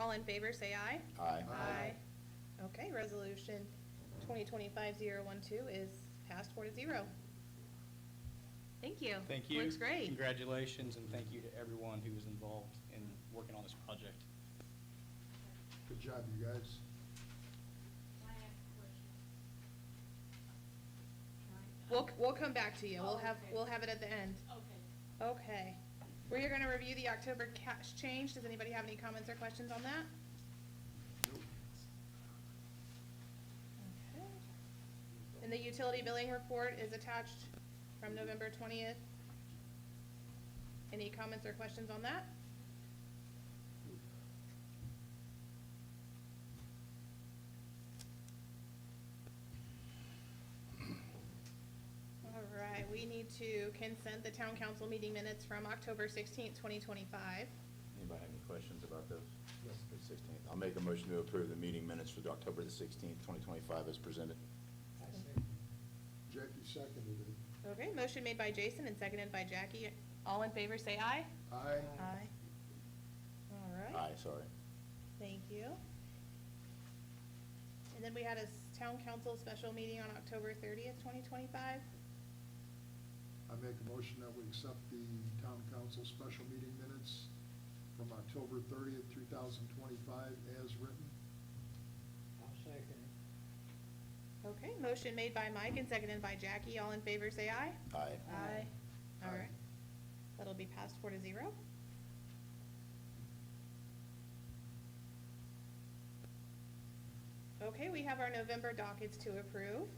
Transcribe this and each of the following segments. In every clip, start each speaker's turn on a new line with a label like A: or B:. A: All in favor, say aye.
B: Aye.
A: Aye. Okay, resolution 2025-012 is passed four to zero. Thank you.
C: Thank you.
A: Looks great.
C: Congratulations, and thank you to everyone who was involved in working on this project.
D: Good job, you guys.
E: I have a question. Can I-
A: We'll, we'll come back to you. We'll
E: Oh,
A: have,
E: okay.
A: we'll have it at the end.
E: Okay.
A: Okay. We are going to review the October cash change. Does anybody have any comments or questions on that? Okay. And the utility billing report is attached from November 20th. Any comments or questions on that? All right, we need to consent the town council meeting minutes from October 16th, 2025.
B: Anybody have any questions about those?
D: No.
B: The 16th. I'll make a motion to approve the meeting minutes for October the 16th, 2025 as presented.
D: Jackie seconded it.
A: Okay, motion made by Jason and seconded by Jackie. All in favor, say aye.
D: Aye.
A: All right.
B: Aye, sorry.
A: Thank you. And then we had a s- town council special meeting on October 30th, 2025.
D: I make a motion that we accept the town council special meeting minutes from October thirtieth, two thousand twenty-five as written.
F: I'll second it.
A: Okay, motion made by Mike and seconded by Jackie. All in favor, say aye.
B: Aye.
F: Aye.
A: All right.
D: Aye.
A: That'll be passed four to zero. Okay, we have our November dockets to approve.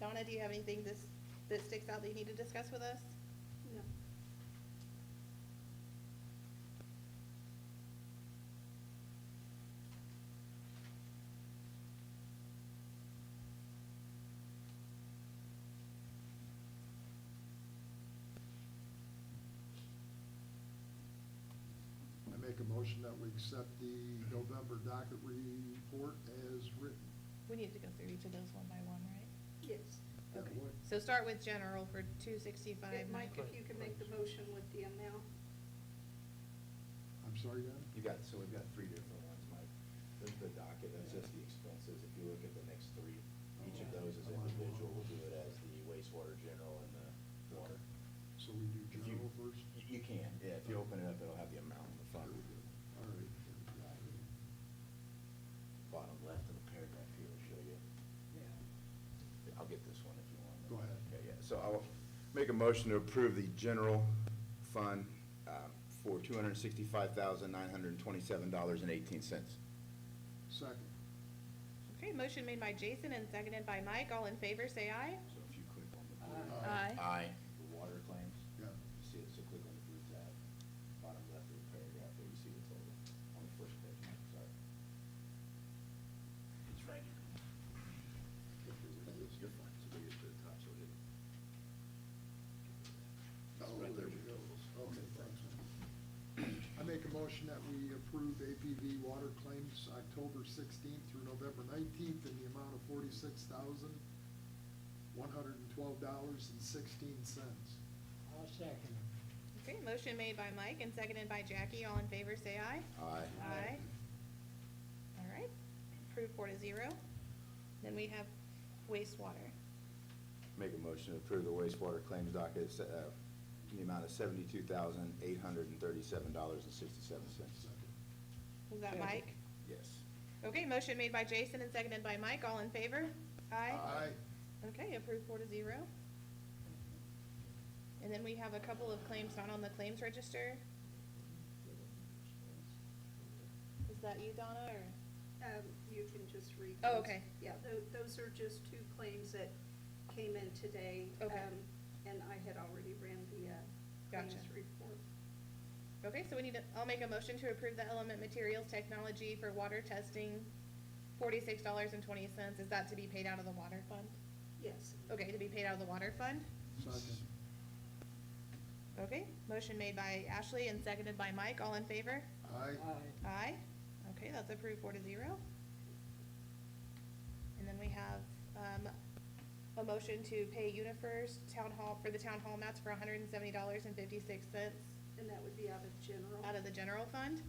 A: Donna, do you have anything this, that sticks out that you need to discuss with us?
E: No.
D: I make a motion that we accept the November docket report as written.
A: We need to go through each of those one by one, right?
G: Yes.
D: Yeah,
A: Okay,
D: what-
A: so start with general for two sixty-five.
G: And Mike, if you can make the motion with the amount.
D: I'm sorry, Dan?
B: You got, so we've got three different ones, Mike. There's the docket, that's just the expenses. If you look at the next three, each of those is individual. We'll do it as the wastewater general and the water.
D: So we do
B: If you-
D: general first?
B: y- You can, yeah. If you open it up, it'll have the amount in the
D: All
B: front,
D: right.
B: bottom left of the paragraph here will show you. I'll get this one if you want.
D: Go ahead.
B: Okay, yeah, so I'll make a motion to approve the general fund um, for two hundred and sixty-five thousand, nine hundred and twenty-seven dollars and eighteen cents.
D: Second.
A: Okay, motion made by Jason and seconded by Mike. All in favor, say aye.
B: So if you click on the blue.
D: Aye.
A: Aye.
B: Aye. The water claims.
D: Yeah.
B: You see it, so click on the blue tab, bottom left of the paragraph, there you see the total, on the first page, sorry. It's right here. You're fine, so bring it to the top, so it.
D: Oh, there we go. Oh, Okay, thanks. man. I make a motion that we approve APV water claims October 16th through November 19th in the amount of $46,112.16.
F: I'll second it.
A: Okay, motion made by Mike and seconded by Jackie. All in favor, say aye.
B: Aye.
A: Aye. All right, approved four to zero. Then we have wastewater.
B: Make a motion to approve the wastewater claims docket, uh, in the amount of seventy-two thousand, eight hundred and thirty-seven dollars and sixty-seven cents.
A: Was that
F: Second.
A: Mike?
B: Yes.
A: Okay, motion made by Jason and seconded by Mike. All in favor? Aye.
D: Aye.
A: Okay, approved four to zero. And then we have a couple of claims not on the claims register. Is that you, Donna, or?
G: Um, You can just read.
A: Oh,
G: those.
A: okay.
G: Yeah, tho- those are just two claims that came in today.
A: Okay.
G: um, And I had already ran the uh,
A: Gotcha.
G: claims report.
A: Okay, so we need to, I'll make a motion to approve the element materials technology for water testing, forty-six dollars and twenty cents. Is that to be paid out of the water fund?
G: Yes.
A: Okay, to be paid out of the water fund?
D: Second.
A: Okay, motion made by Ashley and seconded by Mike. All in favor?
D: Aye.
A: Aye. Okay, that's approved four to zero. And then we have, um, a motion to pay UniFirst Town Hall, for the town hall mats for hundred and seventy dollars and fifty-six cents
G: And that would be out of general.
A: out of the general fund.